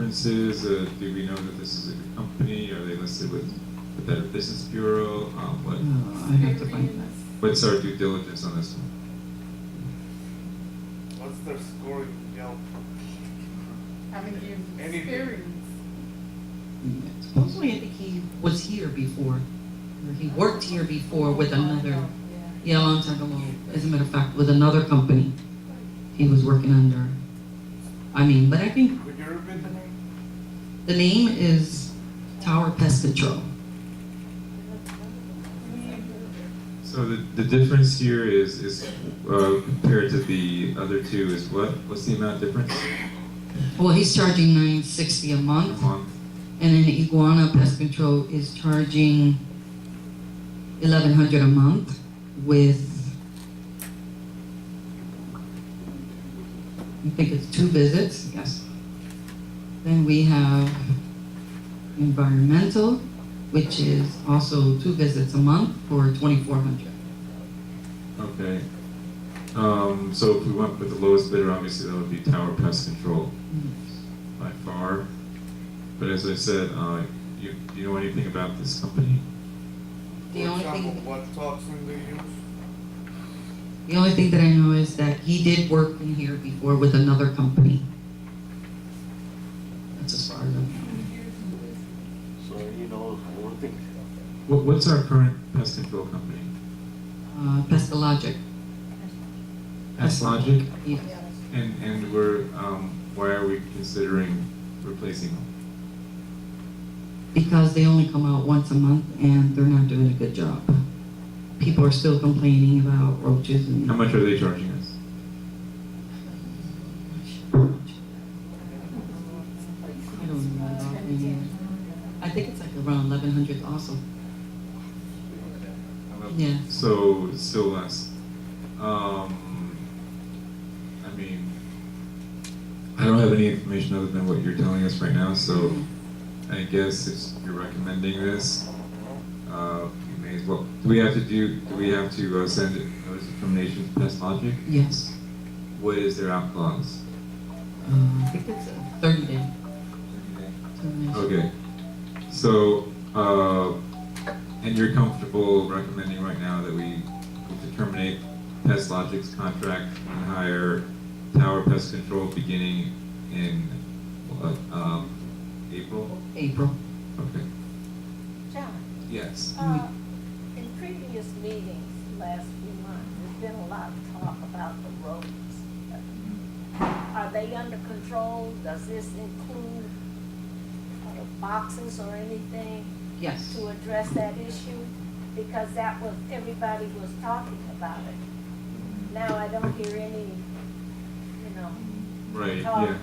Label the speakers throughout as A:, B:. A: references? Uh, do we know that this is a good company? Are they listed with the Better Business Bureau? Um, what,
B: Oh, I'd have to find that.
A: what's our due diligence on this one?
C: What's their score in Yelp?
D: Haven't you
C: Any-
D: experienced?
B: Supposedly, I think he was here before, or he worked here before with another,
D: Yeah.
B: yeah, a long time ago, as a matter of fact, with another company he was working under. I mean, but I think
C: Could you repeat the name?
B: the name is Tower Pest Control.
A: So the, the difference here is, is uh, compared to the other two is what? What's the amount difference?
B: Well, he's charging nine sixty a
A: A
B: month,
A: month?
B: and then Iguana Pest Control is charging eleven hundred a month with I think it's two visits, yes. Then we have environmental, which is also two visits a month for twenty-four hundred.
A: Okay. Um, so if we went with the lowest bidder, obviously that would be Tower Pest Control by far. But as I said, uh, you, do you know anything about this company?
B: The
C: For
B: only thing-
C: example, What toxin they use?
B: The only thing that I know is that he did work in here before with another company. That's as far as I know.
E: So you know, one thing,
A: What, what's our current pest control company?
B: Uh, Pestalogic,
A: Pest Logic?
B: yeah.
A: And, and we're, um, why are we considering replacing them?
B: Because they only come out once a month and they're not doing a good job. People are still complaining about roaches and.
A: How much are they charging us?
B: I don't know. I think it's like around eleven hundred also. Yeah.
A: So, it's still less. Um, I mean, I don't have any information other than what you're telling us right now, so I guess if you're recommending this, uh, you may as well, do we have to do, do we have to uh, send a notice of termination to Pest Logic?
B: Yes.
A: What is their out clause?
B: Uh, I think it's a thirty day termination.
A: Okay, so, uh, and you're comfortable recommending right now that we to terminate Pest Logic's contract and hire Tower Pest Control beginning in, uh, um, April?
B: April.
A: Okay,
F: John,
A: yes.
F: uh, in previous meetings last few months, there's been a lot of talk about the roads. Are they under control? Does this include uh, boxes or anything
B: Yes.
F: to address that issue? Because that was, everybody was talking about it. Now I don't hear any, you know,
A: Right,
F: talk.
A: yeah.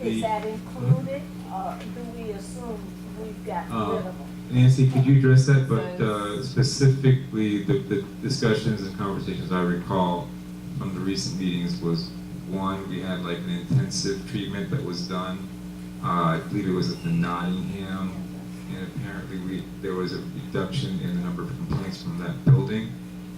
A: The-
F: Is that included, or do we assume we've
A: Uh,
F: gotten rid of them?
A: Nancy, could you address that, but uh, specifically, the, the discussions and conversations I recall from the recent meetings was, one, we had like an intensive treatment that was done, uh, I believe it was at the Nottingham, and apparently we, there was a reduction in the number of complaints from that building,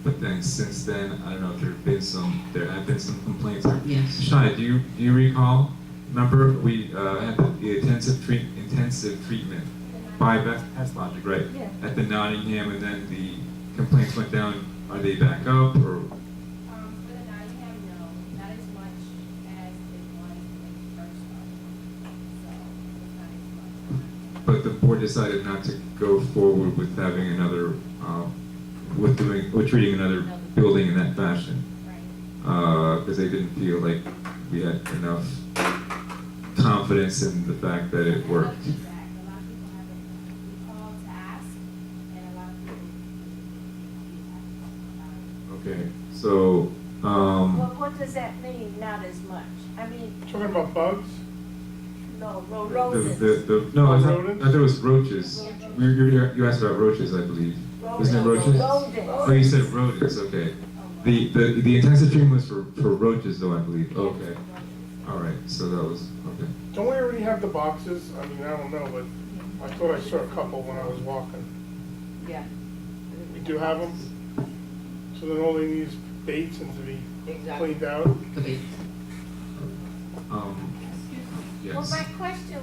A: but then since then, I don't know if there have been some, there have been some complaints, or
B: Yes.
A: Shai, do you, do you recall? Remember, we uh, had the intensive treat, intensive treatment by Beth Pest Logic, right?
F: Yeah.
A: At the Nottingham, and then the complaints went down. Are they back up, or
G: Um, for the Nottingham, no, not as much as it was when it first started. So, it's not as much.
A: but the board decided not to go forward with having another, um, with doing, with treating another building in that fashion?
G: Right.
A: because Uh, they didn't feel like we had enough confidence in the fact that it worked.
G: Exactly. A lot of people have, a call to ask, and a lot of people. um,
A: Okay, so. Um,
F: Well, what does that mean, not as much? I mean,
C: Talking about bugs?
F: no, ro-
A: The,
F: roses.
A: the, the, no, I thought, I
C: Rodents?
A: thought it was roaches. You, you, you asked about roaches, I believe. Isn't it roaches? Oh, you said rodents, okay. The, the, the intensive treatment was for, for roaches though, I believe, okay. All right, so that was, okay.
C: Don't we already have the boxes? I mean, I don't know, but I thought I saw a couple when I was walking.
D: Yeah,
C: We do have them? So then all they need is baits and to be
D: exactly.
C: cleaned out?
B: Could be.
A: Um, yeah, questions.
F: Well, my question